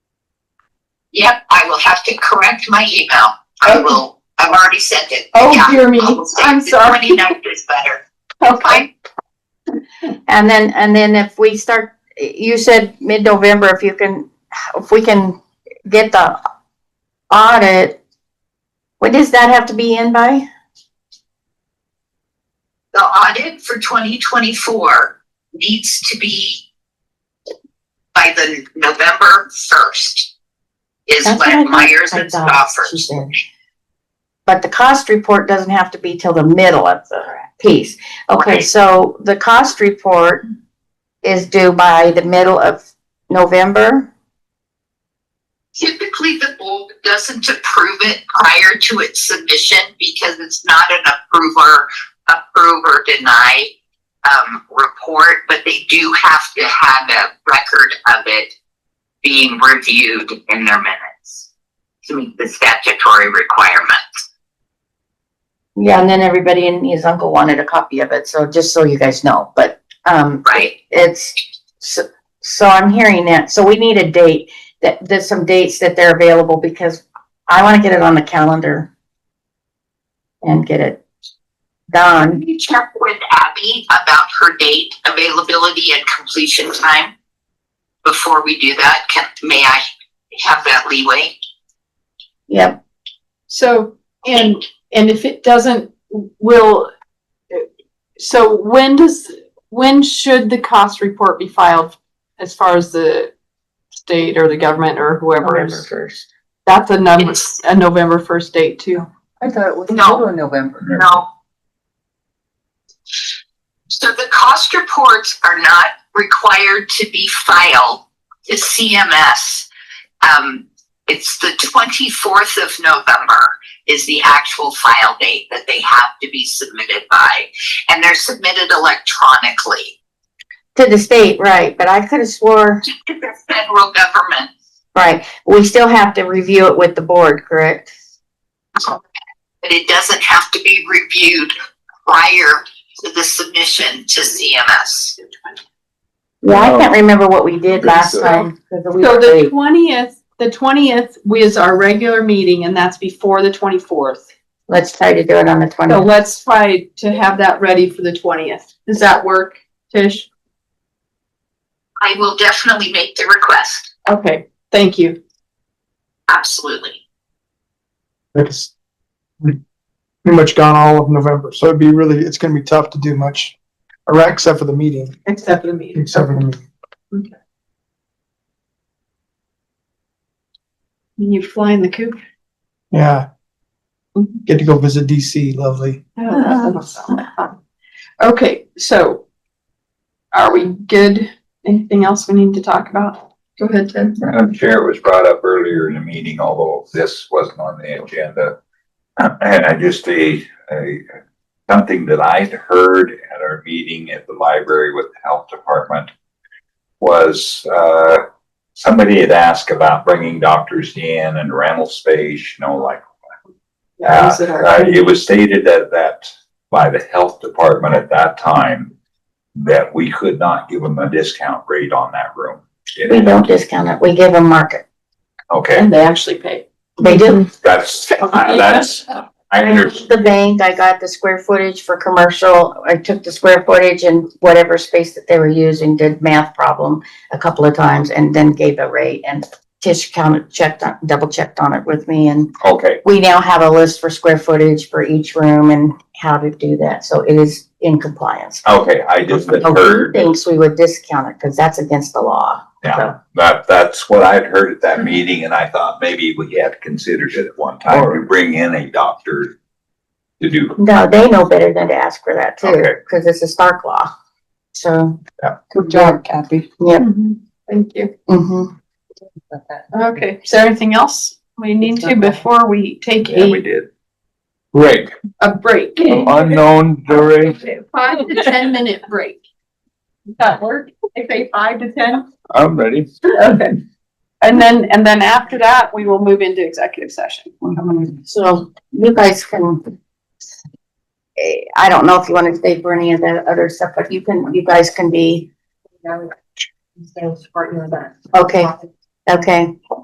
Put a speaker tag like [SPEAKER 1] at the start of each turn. [SPEAKER 1] Yep, I will have to correct my email. I
[SPEAKER 2] Oh.
[SPEAKER 1] will, I've already sent it.
[SPEAKER 2] Oh,
[SPEAKER 1] Yeah,
[SPEAKER 2] dear me.
[SPEAKER 1] I will say
[SPEAKER 2] I'm
[SPEAKER 1] the
[SPEAKER 2] sorry.
[SPEAKER 1] 29th is better.
[SPEAKER 2] Okay,
[SPEAKER 1] I,
[SPEAKER 3] And then, and then if we start, you said mid-November, if you can, if we can get the audit, what does that have to be in by?
[SPEAKER 1] the audit for twenty twenty-four needs to be by the November first is
[SPEAKER 3] That's what I
[SPEAKER 1] when
[SPEAKER 3] thought-
[SPEAKER 1] Myers
[SPEAKER 3] I
[SPEAKER 1] and
[SPEAKER 3] thought she
[SPEAKER 1] Stoffers.
[SPEAKER 3] said. But the cost report doesn't have to be till the middle of the piece. Okay,
[SPEAKER 1] Right.
[SPEAKER 3] so the cost report is due by the middle of November?
[SPEAKER 1] Typically, the board doesn't approve it prior to its submission because it's not an approver, approve or deny um, report, but they do have to have a record of it being reviewed in their minutes to meet the statutory requirement.
[SPEAKER 3] Yeah, and then everybody and his uncle wanted a copy of it, so just so you guys know, but, um,
[SPEAKER 1] Right.
[SPEAKER 3] it's, so, so I'm hearing that, so we need a date, that, there's some dates that they're available, because I wanna get it on the calendar and get it done.
[SPEAKER 1] Can you check with Abby about her date availability and completion time? Before we do that, can, may I have that leeway?
[SPEAKER 3] Yep,
[SPEAKER 2] so, and, and if it doesn't, will, so when does, when should the cost report be filed as far as the state or the government or whoever
[SPEAKER 3] November
[SPEAKER 2] is?
[SPEAKER 3] first.
[SPEAKER 2] That's a number,
[SPEAKER 1] It's-
[SPEAKER 2] a November first date too.
[SPEAKER 4] I thought it was
[SPEAKER 1] No.
[SPEAKER 4] middle of November.
[SPEAKER 1] No. So the cost reports are not required to be filed to CMS. Um, it's the twenty-fourth of November is the actual file date that they have to be submitted by. And they're submitted electronically
[SPEAKER 3] To the state, right, but I could've swore,
[SPEAKER 1] to the federal government.
[SPEAKER 3] right, we still have to review it with the board, correct?
[SPEAKER 1] But it doesn't have to be reviewed prior to the submission to CMS.
[SPEAKER 3] Yeah, I
[SPEAKER 5] No.
[SPEAKER 3] can't remember what we did
[SPEAKER 5] Okay,
[SPEAKER 3] last
[SPEAKER 5] so-
[SPEAKER 3] time, 'cause we
[SPEAKER 2] So
[SPEAKER 3] were
[SPEAKER 2] the
[SPEAKER 3] late.
[SPEAKER 2] twentieth, the twentieth is our regular meeting and that's before the twenty-fourth.
[SPEAKER 3] let's try to do it on the
[SPEAKER 2] So
[SPEAKER 3] twentieth.
[SPEAKER 2] let's try to have that ready for the twentieth. Does that work, Tish?
[SPEAKER 1] I will definitely make the request,
[SPEAKER 2] Okay, thank you.
[SPEAKER 1] absolutely.
[SPEAKER 6] It's pretty much gone all of November, so it'd be really, it's gonna be tough to do much, right, except for the meeting,
[SPEAKER 2] Except for the meeting.
[SPEAKER 6] except for the meeting.
[SPEAKER 2] You fly in the coop?
[SPEAKER 6] Yeah. Get to go visit DC, lovely.
[SPEAKER 2] Oh, that sounds fun. Okay, so are we good? Anything else we need to talk about? Go ahead, Ted.
[SPEAKER 5] Madam Chair, it was brought up earlier in the meeting, although this wasn't on the agenda. And I just, a, a, something that I'd heard at our meeting at the library with the health department was, uh, somebody had asked about bringing doctors in and rental space, you know, like,
[SPEAKER 2] Yeah, is it all
[SPEAKER 5] uh,
[SPEAKER 2] right?
[SPEAKER 5] it was stated that, that by the health department at that time, that we could not give them a discount rate on that room.
[SPEAKER 3] We don't discount it, we give them market.
[SPEAKER 5] Okay.
[SPEAKER 2] And they actually pay.
[SPEAKER 3] They do.
[SPEAKER 5] That's, I- that's, I understand.
[SPEAKER 3] The bank, I got the square footage for commercial, I took the square footage and whatever space that they were using, did math problem a couple of times and then gave a rate and Tish counted, checked, on- double checked on it with me and
[SPEAKER 5] Okay,
[SPEAKER 3] we now have a list for square footage for each room and how to do that, so it is in compliance.
[SPEAKER 5] okay, I just had
[SPEAKER 3] Nobody
[SPEAKER 5] heard,
[SPEAKER 3] thinks we would discount it, cause that's against the law.
[SPEAKER 5] yeah, that, that's what I'd heard at that meeting, and I thought maybe we had considered it at one time, to bring in a doctor to do,
[SPEAKER 3] No, they know better than to ask for that too,
[SPEAKER 5] Okay.
[SPEAKER 3] cause it's a Stark law, so.
[SPEAKER 4] Good job, Kathy.
[SPEAKER 2] Thank you.
[SPEAKER 3] Mm-hmm.
[SPEAKER 2] Okay, is there anything else we need to before we take
[SPEAKER 5] yeah, we Oh,
[SPEAKER 2] a,
[SPEAKER 5] did.
[SPEAKER 7] Rick,
[SPEAKER 2] a break?
[SPEAKER 7] unknown duration,
[SPEAKER 2] Five to ten minute break. Does that work? If they five to ten?
[SPEAKER 7] I'm ready.
[SPEAKER 2] Okay. And then, and then after that, we will move into executive session.
[SPEAKER 3] So you guys can, eh, I don't know if you wanna stay for any of that other stuff, but you can, you guys can be, okay, okay.